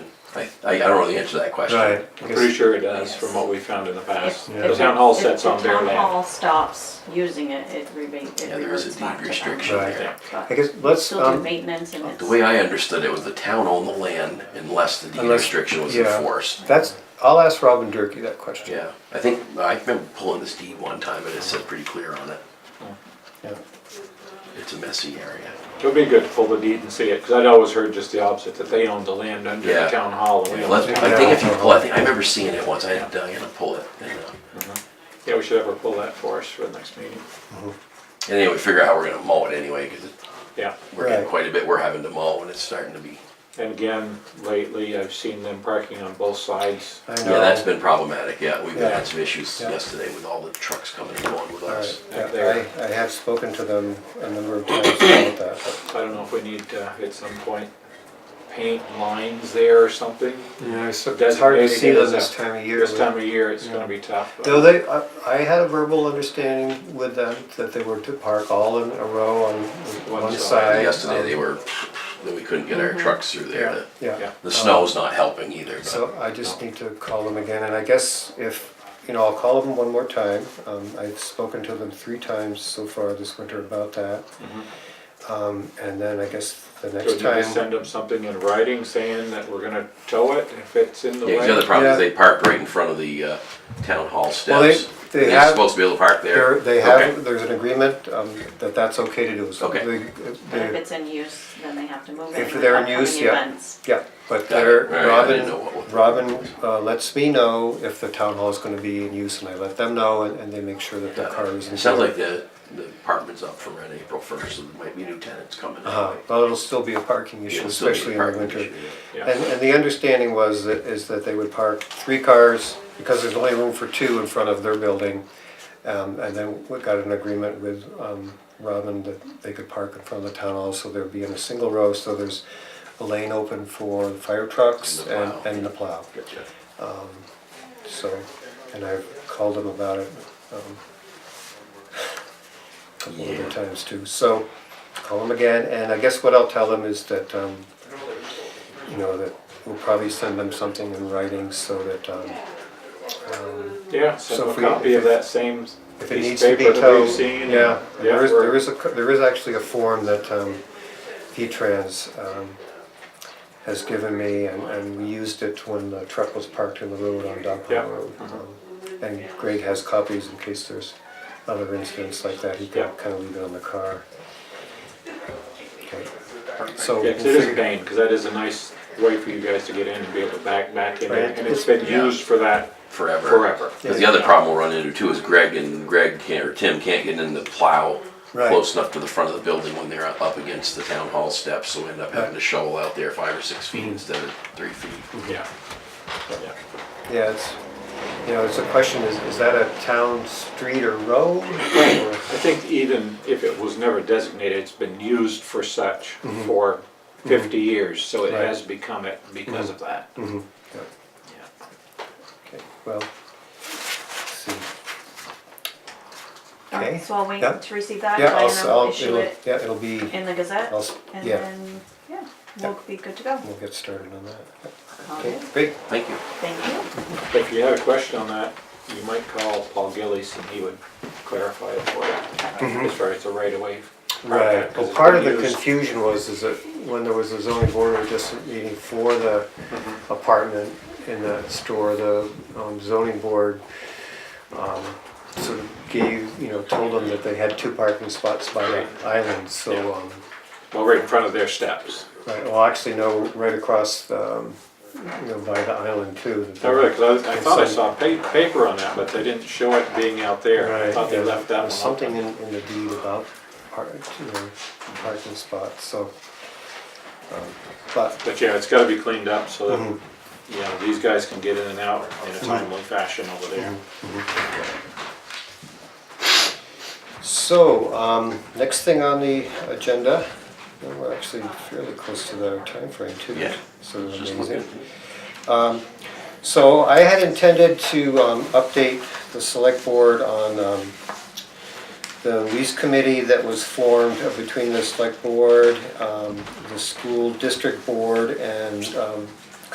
I, I I don't know the answer to that question. Right. I'm pretty sure it does, Yes. from what we found in the past. If- The if town hall If sets on their The town land. hall stops using it, it rebates, it Yeah, there is a reverts back deed to them. restriction Right. there. I guess let's, Still do um, maintenance and it's. The way I understood it was the town owned the land unless the deed Unless- restriction was yeah. enforced. that's, I'll ask Robin Durkey that question. Yeah, I think, I remember pulling this deed one time and it said pretty clear on it. Yeah. It's a messy area. It would be good to pull the deed and see it, because I'd always heard just the opposite, that they owned the land under the Yeah. town hall. and we Unless- owned I it. think if you pull, I think, I remember seeing it once, I had to, I had to pull it. and, uh, Yeah, we should have her pull that for us for the next meeting. And then we figure out how we're gonna mow it anyway, cause it- Yeah, we're getting Right. quite a bit, we're having to mow and it's starting to be, and again, lately, I've seen them parking on both sides. I yeah, know. that's been problematic, yeah. We've Yeah. had some issues Yeah. yesterday with all the trucks coming and going with All us. right, yeah, I, I have spoken to them a number of times about that. but- I don't know if we need to, at some point, paint lines there or something. Yeah, it's, it's That's hard to maybe see them because this of- time of year. This with- time of year, it's Yeah. gonna be tough. but- Though they, I, I had a verbal understanding with them that they were to park all in a row on One one side. side. Yesterday, um, Mm-hmm. they were, that we couldn't get our trucks through there. Yeah, The- yeah. Yeah. The snow's not helping either, but So I just need to call them again, and I guess if, you know, I'll call them one more time. Um, I've spoken to them three times so far this winter about that. Um, and then I guess the Mm-hmm. So next you just time, send them something in writing saying that we're gonna tow it if it's in the way? yeah, 'cause the other problem is Yeah. they park right in front of the uh, town hall Well, they- steps. they They're have- supposed to be able to park there. they're- they Okay. have, there's an agreement, um, that that's okay to do. So Okay. they- But if they- it's in use, then they have to move it. If for they're in upcoming use, yeah. events. Yeah, but Got it. there, All right, I didn't know Robin, what was- Robin uh, lets me know if the town hall is gonna be in use, and I let them know, and, and they make sure that the car is. in It sounds order. like the, the apartment's up for rent April first, so there might be new tenants coming. Uh-huh, in. well, it'll still be a parking issue, It'll still be a especially in the parking winter. issue, yeah. Yeah. And, and the understanding was that, is that they would park three cars, because there's only room for two in front of their building. Um, and then we got an agreement with, um, Robin that they could park in front of the town hall, so there'd be in a single row, so there's a lane open for the fire trucks And the and, plow. and the plow. Um, Gotcha. So, and I've called them about it, um, a couple Yeah. other times too. So, call them again, and I guess what I'll tell them is that, um, you know, that we'll probably send them something in writing so that, um, Yeah, So send if a we- copy if of it- that same if it needs piece to of be paper that towed. we've seen. Yeah, and- there is, we're- there is a, co- there is actually a form that, um, V-Trans, um, has given me, and, and we used it when the truck was parked in the road on Yeah. Uh-huh. Dompond Road. um, And Greg has copies in case there's other incidents like that, he Yeah. can kind of leave it on the car. Okay. So. Yeah, 'cause it is a pain, because that is a nice way for you guys to get in and be able to back, back in, Right. and it's been Yeah. used for that Forever. forever. Because the other problem we'll run into too is Greg and Greg can't, or Tim can't get in the plow Right. close enough to the front of the building when they're up against the town hall steps, so we end up having to shovel out there five or six feet instead of three feet. Yeah. Yeah. Yeah, it's, you know, it's a question, is, is that a town street or road? or- I think even if it was never designated, it's been used for such for fifty years, so it Mm-hmm. Right. Mm-hmm. has become it because of that. Yeah. Yeah. Okay, well, let's see. All right, Okay. So I'll wait Yeah. to receive that, Yeah, I'll, s- and then I'll I'll, issue it'll, it yeah, it'll be, in the Gazette, I'll s- and yeah. then, yeah, we'll be good to go. we'll get started on that. Okay, Okay, great. Thank you. thank you. If you had a question on that, you might call Paul Gillies and he would clarify it for you. As far as the right of way. Mm-hmm. Right, well, Because part of it's the been used. confusion was, is that when there was a zoning board of adjustment meeting for the Mm-hmm. apartment in that store, the um, zoning board um, sort of gave, you know, told them that they had two parking spots by the island, so, um, Well, right in front of their steps. right, well, actually, no, right across, um, you know, by the island too. that they- Not really, 'cause I, I And thought I some- saw pa- paper on that, but they didn't show it being out there. I Right, thought they yeah, left there that was one Something open. in, in the deed about park, you know, parking spots, so. um, But, But yeah, it's gotta be cleaned up so that, Mm-hmm. you know, these guys can get in and out in a timely fashion over there. Mm-hmm. so, um, next thing on the agenda, and we're actually fairly close to the timeframe too. Yeah. Sort of Just amazing. looking. So I had intended to um, update the select board on um, the lease committee that was formed between the select board, um, the school district board, and um,